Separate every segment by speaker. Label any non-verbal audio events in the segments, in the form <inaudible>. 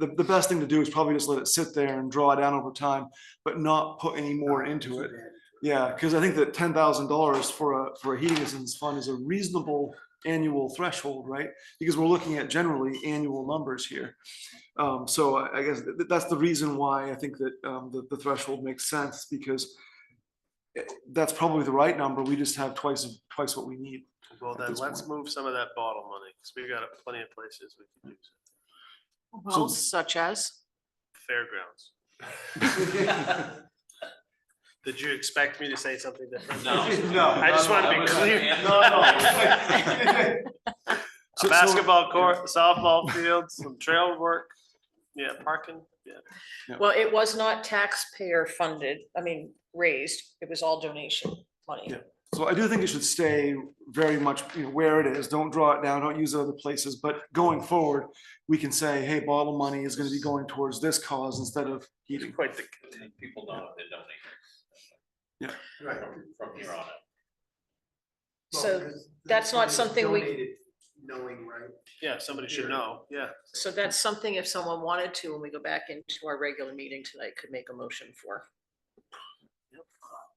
Speaker 1: the, the best thing to do is probably just let it sit there and draw down over time, but not put any more into it. Yeah, because I think that ten thousand dollars for a, for a heating assistance fund is a reasonable annual threshold, right? Because we're looking at generally annual numbers here. Um, so I, I guess that, that's the reason why I think that, um, the, the threshold makes sense because eh, that's probably the right number. We just have twice, twice what we need.
Speaker 2: Well,
Speaker 1: at
Speaker 2: then
Speaker 1: this
Speaker 2: let's
Speaker 1: point.
Speaker 2: move some of that bottle money, because we've got plenty of places we can use it.
Speaker 3: Well, such as,
Speaker 4: <laughs>
Speaker 2: Fairgrounds. Did you expect me to say something different?
Speaker 4: No.
Speaker 2: I just wanted to be clear.
Speaker 1: So- so-
Speaker 2: A basketball court, softball field, some trail work, yeah, parking, yeah.
Speaker 3: well, it was not taxpayer funded, I mean, raised, it was all donation money.
Speaker 1: Yeah. So I do think it should stay very much, you know, where it is. Don't draw it down, don't use it other places, but going forward, we can say, hey, bottle money is gonna be going towards this cause instead of heating.
Speaker 2: Quite the,
Speaker 4: People know what they're donating.
Speaker 1: Yeah.
Speaker 4: From- From here on out.
Speaker 3: So that's not something we-
Speaker 5: Knowing, right?
Speaker 2: yeah, somebody should know, yeah.
Speaker 3: So that's something if someone wanted to, when we go back into our regular meeting tonight, could make a motion for.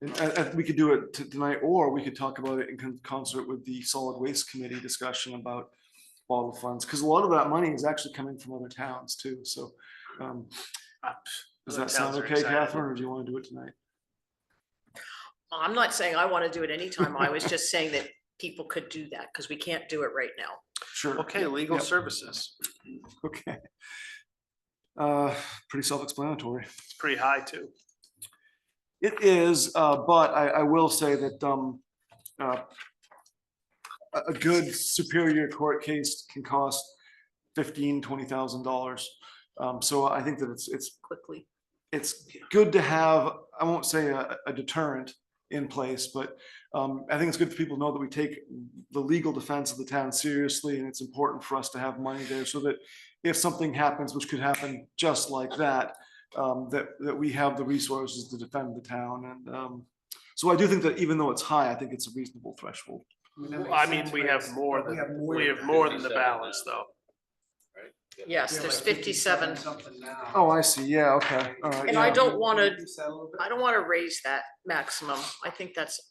Speaker 1: And, and- and we could do it t- tonight, or we could talk about it in con- concert with the solid waste committee discussion about bottle funds, because a lot of that money is actually coming from other towns too, so. um,
Speaker 2: Ah,
Speaker 1: Does
Speaker 2: other
Speaker 1: that sound
Speaker 2: towns are
Speaker 1: okay,
Speaker 2: excited.
Speaker 1: Catherine, or do you want to do it tonight?
Speaker 3: I'm not saying I want to do it anytime, I was just saying that people could do that, because we can't do it right now.
Speaker 1: Sure.
Speaker 2: Okay, legal
Speaker 1: Yep.
Speaker 2: services,
Speaker 1: Okay. Uh, pretty self-explanatory.
Speaker 2: it's pretty high too.
Speaker 1: It is, uh, but I, I will say that, um, uh, a, a good superior court case can cost fifteen, twenty thousand dollars. Um, so I think that it's, it's,
Speaker 3: Quickly,
Speaker 1: it's good to have, I won't say a, a deterrent in place, but, um, I think it's good for people to know that we take the legal defense of the town seriously and it's important for us to have money there so that if something happens, which could happen just like that, um, that, that we have the resources to defend the town and, um, so I do think that even though it's high, I think it's a reasonable threshold.
Speaker 5: that
Speaker 2: Well,
Speaker 5: makes
Speaker 2: I mean,
Speaker 5: sense,
Speaker 2: we
Speaker 5: but
Speaker 2: have
Speaker 5: it's-
Speaker 2: more
Speaker 5: but we
Speaker 2: than-
Speaker 5: have
Speaker 2: We
Speaker 5: than
Speaker 2: have
Speaker 5: that.
Speaker 2: more than the balance though.
Speaker 3: yes,
Speaker 5: We have
Speaker 3: there's
Speaker 5: like
Speaker 3: fifty-seven,
Speaker 5: Something now.
Speaker 1: Oh, I see. Yeah, okay. All right.
Speaker 3: And I
Speaker 1: yeah.
Speaker 3: don't wanna-
Speaker 5: Reduce that a little bit?
Speaker 3: I don't want to raise that maximum, I think that's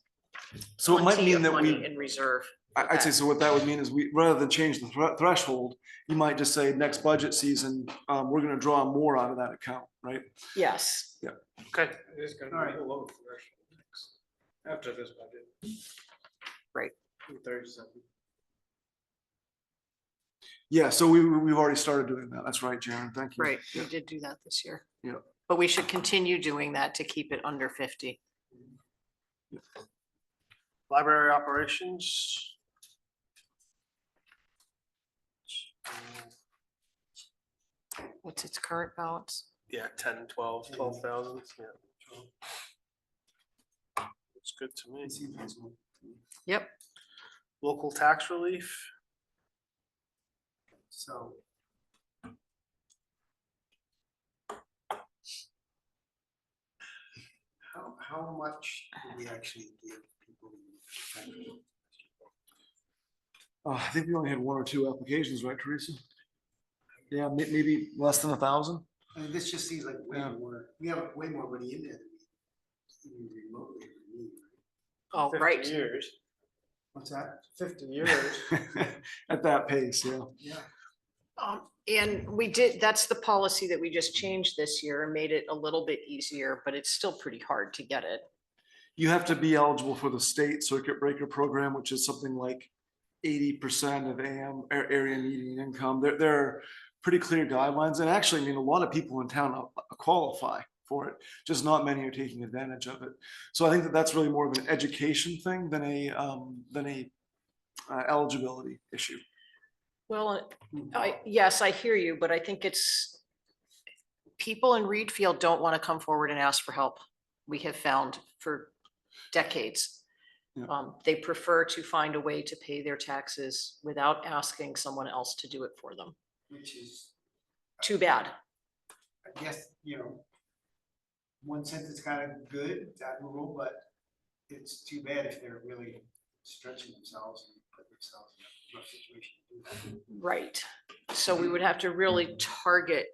Speaker 1: So it might
Speaker 3: plenty
Speaker 1: mean
Speaker 3: of
Speaker 1: that
Speaker 3: money
Speaker 1: we,
Speaker 3: in reserve.
Speaker 1: I- I'd say, so what that would mean is we, rather than change the thre- threshold, you might just say next budget season, um, we're gonna draw more out of that account, right?
Speaker 3: Yes,
Speaker 2: Okay,
Speaker 6: It's gonna
Speaker 5: Alright.
Speaker 6: be below threshold next, after this budget.
Speaker 3: Right.
Speaker 6: Thirty-seven.
Speaker 1: Yeah, so we, we- we've already started doing that. That's right, Jaren. Thank you.
Speaker 3: right, we did do that this year.
Speaker 1: Yeah.
Speaker 3: But we should continue doing that to keep it under fifty.
Speaker 2: library operations.
Speaker 3: What's its current balance?
Speaker 2: Yeah, ten, twelve, twelve thousand, yeah. It's good to me.
Speaker 3: Yep,
Speaker 2: Local tax relief,
Speaker 5: So. How, how much do we actually give people?
Speaker 1: Uh, I think we only had one or two applications, right, Teresa? Yeah, may- maybe less than a thousand. <laughs>
Speaker 5: I mean, this just seems like way
Speaker 1: Yeah.
Speaker 5: more, we have way more money in there than we even remotely would need. right?
Speaker 3: oh,
Speaker 2: fifty
Speaker 3: right,
Speaker 2: years,
Speaker 5: What's that?
Speaker 2: fifty years.
Speaker 1: At that pace, yeah.
Speaker 5: Yeah.
Speaker 3: um, and we did, that's the policy that we just changed this year and made it a little bit easier, but it's still pretty hard to get it.
Speaker 1: you have to be eligible for the state circuit breaker program, which is something like eighty percent of AM a- area median income. There, there are pretty clear guidelines, and actually, I mean, a lot of people in town uh, qualify for it. Just not many are taking advantage of it. So I think that that's really more of an education thing than a um, than a uh, eligibility issue.
Speaker 3: Well,
Speaker 2: Hmm.
Speaker 3: I, yes, I hear you, but I think it's, people in Reed Field don't want to come forward and ask for help. We have found for decades.
Speaker 1: Yeah.
Speaker 3: Um, they prefer to find a way to pay their taxes without asking someone else to do it for them.
Speaker 5: Which is,
Speaker 3: Too bad.
Speaker 5: I guess, you know, one sense it's kind of good, it's admirable, but it's too bad if they're really stretching themselves and putting themselves in a rough situation. to do that.
Speaker 3: Right. So we would have to really target